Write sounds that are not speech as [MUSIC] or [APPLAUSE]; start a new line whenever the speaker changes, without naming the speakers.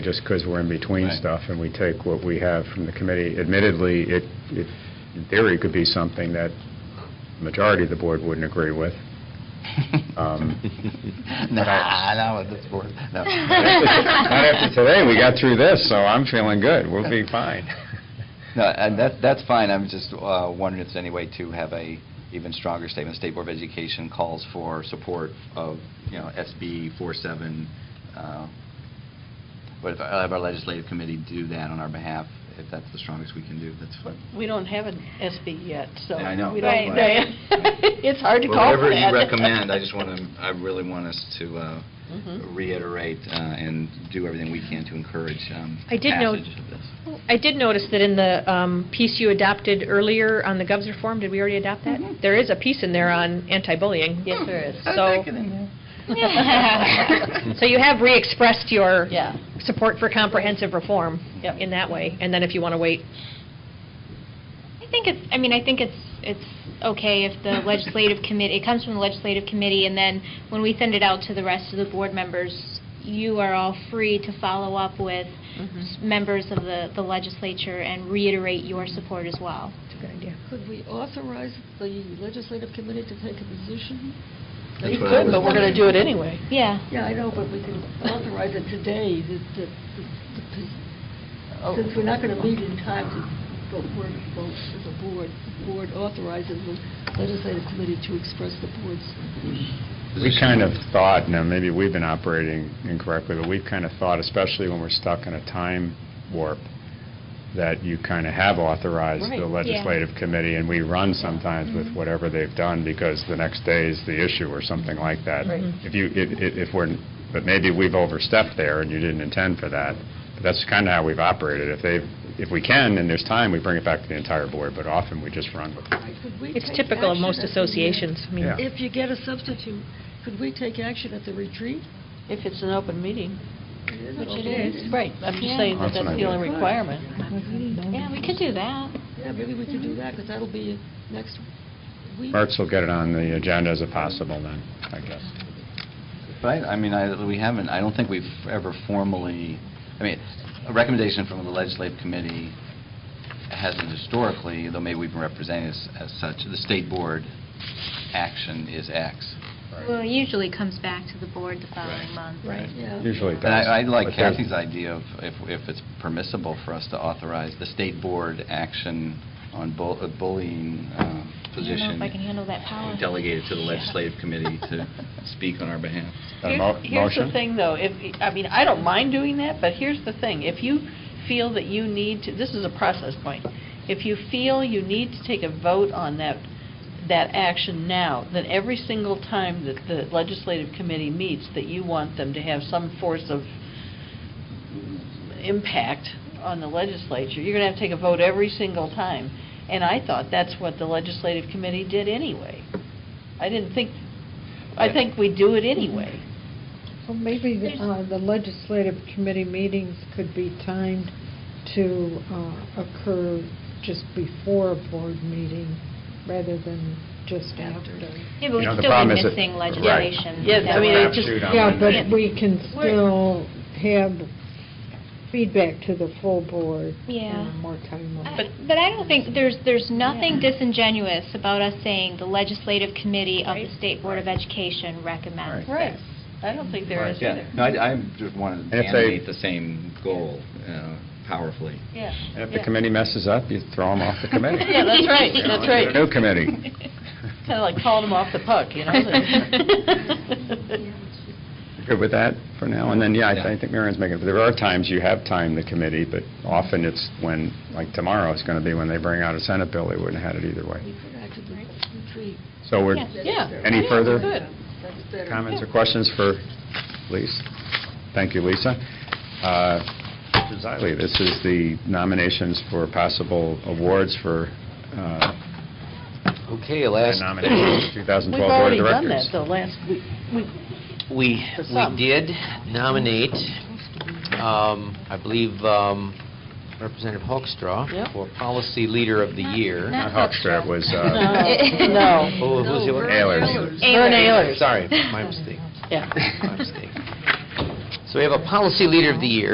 just because we're in between
Right.
stuff, and we take what we have from the committee. Admittedly, it, it in theory, could be something that the majority of the board wouldn't agree with. Um,
[LAUGHS] Nah, not with this board, no.
Not after today, we got through this, so I'm feeling good, we'll be fine.
No, and that, that's fine, I'm just uh, wondering if there's any way to have a even stronger statement. State Board of Education calls for support of, you know, SB 47. uh, But if I have our legislative committee do that on our behalf, if that's the strongest we can do, that's fine.
We don't have an SB yet, so.
Yeah, I know.
we don't-
Right.
[LAUGHS] It's hard to
Well,
call for
Whatever
that.
you recommend, I just want to, I really want us to uh,
Mhm.
reiterate uh, and do everything we can to encourage um,
I did note-
passage of this.
I did notice that in the um, piece you adopted earlier on the GOVS reform, did we already adopt that?
Mm-hmm.
There is a piece in there on anti-bullying.
Yes, there is.
So,
[LAUGHS]
[LAUGHS] so you have re-expressed your
Yeah.
support for comprehensive reform
Yep.
in that way, and then if you want to wait.
I think it's, I mean, I think it's, it's okay if the legislative committee, it comes from the legislative committee, and then when we send it out to the rest of the board members, you are all free to follow up with
Mm-hmm.
s- members of the the legislature and reiterate your support as well.
It's a good idea.
Could we authorize the legislative committee to take a position?
That's
You
what I
could,
was
but we're going
wondering.
to do it anyway.
Yeah.
Yeah, I know, but we can authorize it today, that, that, the pos- since we're not going to meet in time to vote, word vote as a board, the board authorizes the legislative committee to express the board's.
We kind of thought, now, maybe we've been operating incorrectly, but we've kind of thought, especially when we're stuck in a time warp, that you kind of have authorized
Right.
the
Yeah. Mm-hmm.
legislative committee, and we run sometimes with whatever they've done, because the next day is the issue or something like that.
Right.
If you, if, if if we're, but maybe we've overstepped there, and you didn't intend for that. But that's kind of how we've operated. If they, if we can, and there's time, we bring it back to the entire board, but often we just run with it.
Could we
It's
take
typical of
action
most
at the, uh,
associations. I mean,
Yeah.
If you get a substitute, could we take action at the retreat?
If it's an open meeting.
Which
it is.
Right, I'm just
Yeah.
saying that
That's an
that's the only
idea.
requirement.
Yeah, we could do that.
Yeah, maybe we could do that, because that'll be next week.
Mertz will get it on the agenda as a possible then, I guess.
But I, I mean, I, we haven't, I don't think we've ever formally, I mean, a recommendation from the legislative committee hasn't historically, though maybe we've been represented as, as such, the state board action is X.
Well, it usually comes back to the board the following
Right.
month.
Right, yeah.
Usually it
But I, I
does.
like
But there's-
Kathy's idea of if, if it's permissible for us to authorize the state board action on bu- uh, bullying uh,
I don't know if
position.
I can handle that power.
Delegated to the legislative committee
[LAUGHS]
to speak on our behalf.
A
Here's-
mo-
Here's the
motion?
thing, though, if, I mean, I don't mind doing that, but here's the thing, if you feel that you need to, this is a process point, if you feel you need to take a vote on that, that action now, then every single time that the legislative committee meets, that you want them to have some force of impact on the legislature, you're going to have to take a vote every single time. And I thought that's what the legislative committee did anyway. I didn't think, I think we do it anyway.
Well, maybe the uh, the legislative committee meetings could be timed to uh, occur just before a board meeting rather than just
After.
after.
Yeah, but
You
we'd
know, the
still
problem
be
is that-
missing
right.
legislation.
Yes, I
that
mean,
we're-
it just-
Crapshoot on
Yeah,
Monday.
but we can
Um, We're-
still have feedback to the full board.
Yeah.
and More time. on it.
I- But I don't think, there's, there's nothing disingenuous about us saying the legislative committee of the
Right.
State Board of Education recommends
Right.
this.
I don't think there is
Right,
either.
Yeah, no, I, I just want
And
to
if they-
animate the same goal uh, powerfully.
Yeah.
And if the committee messes up, you throw them
[LAUGHS]
off the committee.
Yeah, that's right,
You know,
that's right.
New
[LAUGHS]
committee.
Kind of like calling them off the
[LAUGHS]
puck, [LAUGHS] you know?
Good with that for now? And then, yeah, I th-
Yeah.
I think Marion's making, there are times you have time, the committee, but often it's when, like tomorrow, it's going to be when they bring out a Senate bill, they wouldn't have had it either way.
We could act at the retreat.
So we're,
Yeah.
Yeah.
Any
Yeah,
further?
Good.
That's better.
comments or questions for Lisa? Thank you, Lisa. Uh, Mr. Zeiley, this is the nominations for possible awards for uh,
Okay,
nominations for
[CLEARS THROAT]
2012
We've
Board
already
of
done
Directors.
that, though, last week. We-
We,
For some.
we did nominate, um, I believe, um, Representative
Yep.
Hoekstra for Policy Leader of the Year.
Not Hoekstra, it
[LAUGHS]
was uh,
No,
[LAUGHS]
no.
Oh, who's the other?
Ehlers.
Vern Ehlers. [LAUGHS]
Sorry, my mistake,
Yeah.
my mistake. So we have a Policy Leader of the Year,